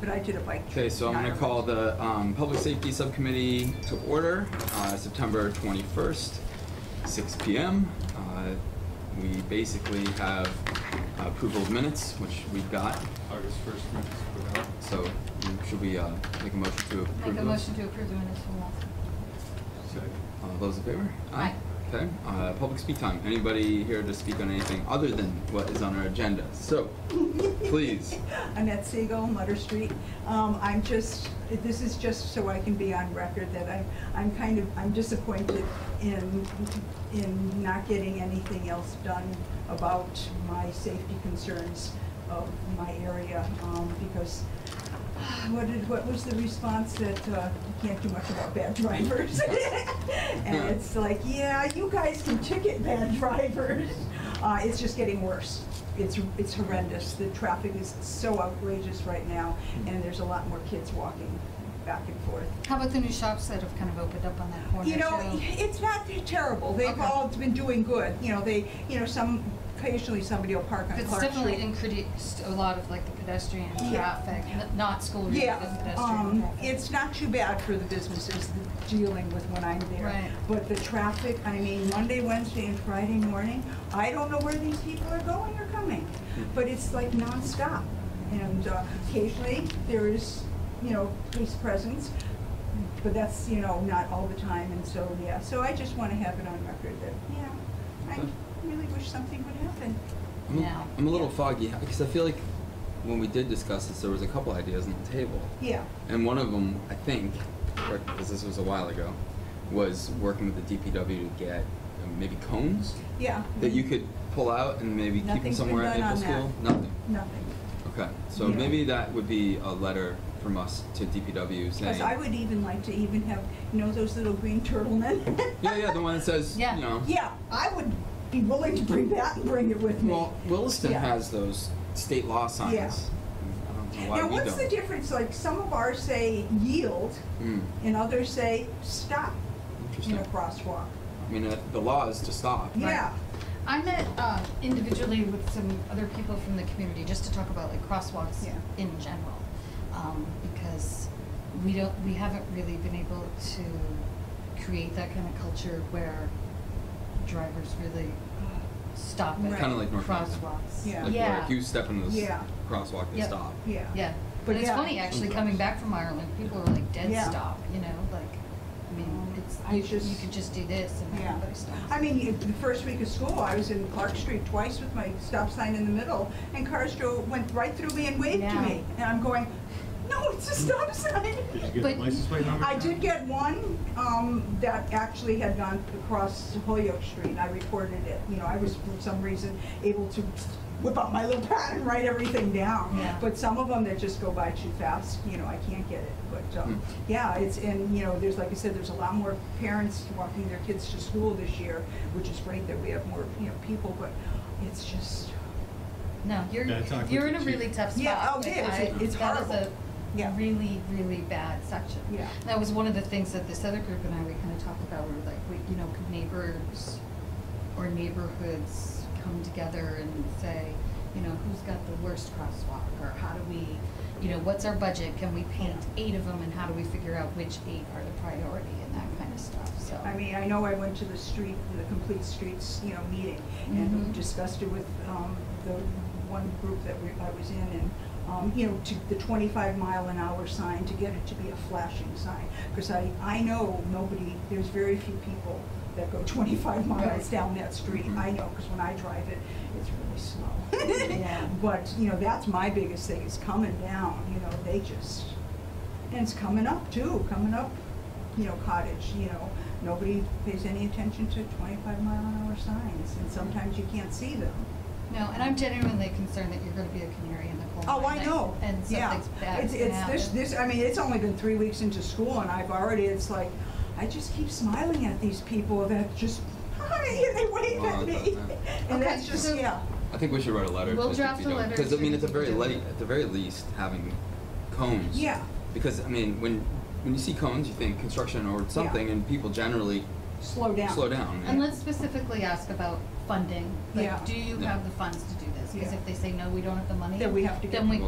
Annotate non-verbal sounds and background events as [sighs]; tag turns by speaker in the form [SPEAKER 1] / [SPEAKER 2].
[SPEAKER 1] but I did it like.
[SPEAKER 2] Okay, so I'm gonna
[SPEAKER 1] nine
[SPEAKER 2] call
[SPEAKER 1] hours.
[SPEAKER 2] the um, Public Safety Subcommittee to order, uh, September 21st, 6 PM. Uh, We basically have approval of minutes, which we've got,
[SPEAKER 3] August first minutes were out.
[SPEAKER 2] so should we uh, make a motion to approve those?
[SPEAKER 4] Make a motion to approve the minutes from last.
[SPEAKER 3] Second.
[SPEAKER 2] All those in favor?
[SPEAKER 4] Aye.
[SPEAKER 2] Okay, uh, public speak time. Anybody here to speak on anything other than what is on our agenda? So, please.
[SPEAKER 1] Annette Siegel, Mutter Street. Um, I'm just, this is just so I can be on record that I'm, I'm kind of, I'm disappointed in, in not getting anything else done about my safety concerns of my area, um, because [sighs] what did, what was the response that, uh, you can't do much about bad drivers? [laughs] And it's like, yeah, you guys can ticket bad [laughs] drivers. Uh, it's just getting worse. It's, it's horrendous. The traffic is so outrageous right now, and there's a lot more kids walking back and forth.
[SPEAKER 4] How about the new shops that have kind of opened up on that corner?
[SPEAKER 1] You know,
[SPEAKER 4] too?
[SPEAKER 1] [laughs] it's not terrible. They've
[SPEAKER 4] Okay.
[SPEAKER 1] all been doing good. You know, they, you know, some, occasionally somebody will park on
[SPEAKER 4] But
[SPEAKER 1] Clark
[SPEAKER 4] It's
[SPEAKER 1] Street.
[SPEAKER 4] definitely increased a lot of like the pedestrian
[SPEAKER 1] Yeah.
[SPEAKER 4] traffic, n- not school related
[SPEAKER 1] Yeah,
[SPEAKER 4] pedestrian
[SPEAKER 1] um,
[SPEAKER 4] traffic.
[SPEAKER 1] it's not too bad for the businesses that dealing with when I'm there.
[SPEAKER 4] Right.
[SPEAKER 1] But the traffic, I mean, Monday, Wednesday, and Friday morning, I don't know where these people are going or coming, but it's like nonstop. And uh, occasionally, there is, you know, police presence, but that's, you know, not all the time, and so, yeah. So I just want to have it on record that, yeah, I
[SPEAKER 2] Okay.
[SPEAKER 1] really wish something would happen.
[SPEAKER 2] I'm,
[SPEAKER 4] Now.
[SPEAKER 2] I'm a little foggy because I feel like when we did discuss this, there was a couple ideas on the table,
[SPEAKER 1] Yeah,
[SPEAKER 2] and one of them, I think, because this was a while ago, was working with the DPW to get uh, maybe cones
[SPEAKER 1] yeah.
[SPEAKER 2] that you could pull out and maybe
[SPEAKER 1] Mm-hmm.
[SPEAKER 2] keep them
[SPEAKER 1] Nothing's been
[SPEAKER 2] somewhere at
[SPEAKER 1] done
[SPEAKER 2] Maple
[SPEAKER 1] on
[SPEAKER 2] School.
[SPEAKER 1] that.
[SPEAKER 2] Nothing.
[SPEAKER 1] Nothing.
[SPEAKER 2] Okay, so
[SPEAKER 1] Yeah.
[SPEAKER 2] maybe that would be a letter from us to DPW saying.
[SPEAKER 1] Because I would even like to even have, you know, those little green turtlemen. [laughs]
[SPEAKER 2] Yeah, yeah, the one that says, you
[SPEAKER 4] Yeah.
[SPEAKER 2] know.
[SPEAKER 1] Yeah, I would be willing to bring that and bring it with me.
[SPEAKER 2] Well, Williston
[SPEAKER 1] Yeah.
[SPEAKER 2] has those state law signs.
[SPEAKER 1] Yeah.
[SPEAKER 2] I don't know why
[SPEAKER 1] Now,
[SPEAKER 2] we
[SPEAKER 1] what's the
[SPEAKER 2] don't.
[SPEAKER 1] difference, like, some of ours say yield,
[SPEAKER 2] Mm,
[SPEAKER 1] and others say stop in
[SPEAKER 2] interesting.
[SPEAKER 1] a crosswalk.
[SPEAKER 2] I mean, uh, the law is to stop.
[SPEAKER 4] Right.
[SPEAKER 1] Yeah,
[SPEAKER 4] I met uh, individually with some other people from the community just to talk about like crosswalks
[SPEAKER 1] Yeah.
[SPEAKER 4] in general, um, because we don't, we haven't really been able to create that kind of culture where drivers really stop at
[SPEAKER 1] Right. Kinda
[SPEAKER 2] like North Hampton.
[SPEAKER 4] crosswalks.
[SPEAKER 1] Yeah.
[SPEAKER 2] Like,
[SPEAKER 4] yeah.
[SPEAKER 2] like you step in this
[SPEAKER 1] Yeah.
[SPEAKER 2] crosswalk and
[SPEAKER 4] Yep.
[SPEAKER 2] stop.
[SPEAKER 1] yeah.
[SPEAKER 4] Yeah,
[SPEAKER 1] But
[SPEAKER 4] but it's
[SPEAKER 1] yeah.
[SPEAKER 4] funny actually coming back from Ireland, people are like dead
[SPEAKER 1] Yeah. Um,
[SPEAKER 4] stop, you know, like, I mean, it's
[SPEAKER 1] I
[SPEAKER 4] you,
[SPEAKER 1] just-
[SPEAKER 4] you could just do this and
[SPEAKER 1] Yeah.
[SPEAKER 4] everybody stops.
[SPEAKER 1] I mean, if- the first week of school, I was in Clark Street twice with my stop sign in the middle, and cars drove, went right through me and waved to
[SPEAKER 4] Yeah.
[SPEAKER 1] me. And I'm going, no, it's a stop sign.
[SPEAKER 3] Did you get the
[SPEAKER 4] But-
[SPEAKER 3] license plate number?
[SPEAKER 1] I did get one, um, that actually had gone across Holyoke Street, and I recorded it. You know, I was, for some reason, able to whip out my little pad and write everything down.
[SPEAKER 4] Yeah.
[SPEAKER 1] But some of them that just go by too fast, you know, I can't get it. But,
[SPEAKER 2] Hmm.
[SPEAKER 1] um, yeah, it's, and, you know, there's, like I said, there's a lot more parents walking their kids to school this year, which is great that we have more, you know, people, but it's just,
[SPEAKER 4] No, you're,
[SPEAKER 3] Yeah, it's awkward
[SPEAKER 4] you're in a
[SPEAKER 3] to-
[SPEAKER 4] really tough spot.
[SPEAKER 1] Yeah, oh, it
[SPEAKER 4] Like,
[SPEAKER 1] is.
[SPEAKER 4] I-
[SPEAKER 1] It- it's
[SPEAKER 4] That
[SPEAKER 1] horrible.
[SPEAKER 4] is
[SPEAKER 1] Yeah.
[SPEAKER 4] a really, really bad section.
[SPEAKER 1] Yeah.
[SPEAKER 4] That was one of the things that this other group and I, we kind of talked about, we were like, we, you know, could neighbors or neighborhoods come together and say, you know, who's got the worst crosswalk, or how do we, you know, what's our budget, can we paint eight of them, and how do we figure out which eight are the priority, and that kind of stuff, so.
[SPEAKER 1] I
[SPEAKER 4] [laughs]
[SPEAKER 1] mean, I know I went to the street, the complete streets, you know, meeting
[SPEAKER 4] Mhm.
[SPEAKER 1] and discussed it with, um, the one group that we, I was in and, um, you know, to the twenty-five mile an hour sign, to get it to be a flashing sign. Cause I, I know nobody, there's very few people that go twenty-five miles
[SPEAKER 4] Right. Mm-hmm.
[SPEAKER 1] down that street.
[SPEAKER 2] Mhm.
[SPEAKER 1] I know, cause when I drive it, it's really slow.
[SPEAKER 4] Yeah.
[SPEAKER 1] But, you know, that's my biggest thing, is coming down, you know, they just, and it's coming up too, coming up, you know, cottage, you know, nobody pays any attention to twenty-five mile an hour signs, and sometimes you can't see them.
[SPEAKER 4] No, and I'm genuinely concerned that you're gonna be a canary in the coal
[SPEAKER 1] Oh,
[SPEAKER 4] mine.
[SPEAKER 1] I know,
[SPEAKER 4] And
[SPEAKER 1] yeah.
[SPEAKER 4] something's bad.
[SPEAKER 1] It's, it's this, this, I mean, it's only been three weeks into school, and I've already, it's like, I just keep smiling at these people that just, [laughs] hi, and they wave
[SPEAKER 2] Oh,
[SPEAKER 1] at me,
[SPEAKER 2] that-
[SPEAKER 1] and
[SPEAKER 4] Okay,
[SPEAKER 1] that's just,
[SPEAKER 4] so-
[SPEAKER 1] yeah,
[SPEAKER 2] I think we should write a letter.
[SPEAKER 4] We'll
[SPEAKER 2] to
[SPEAKER 4] draft a letter
[SPEAKER 2] Because I
[SPEAKER 4] to
[SPEAKER 2] mean, at the very
[SPEAKER 4] DPW.
[SPEAKER 2] late, at the very least, having cones.
[SPEAKER 1] yeah,
[SPEAKER 2] Because I mean, when when you see cones, you think construction or something, and people generally
[SPEAKER 1] slow down.
[SPEAKER 2] slow down.
[SPEAKER 4] And let's specifically ask about funding. Like,
[SPEAKER 1] Yeah.
[SPEAKER 4] do you
[SPEAKER 2] Yeah.
[SPEAKER 4] have the funds to do this? Because
[SPEAKER 1] Yeah.
[SPEAKER 4] if they say, no, we don't have the money.
[SPEAKER 1] Then we have to get-
[SPEAKER 4] Then we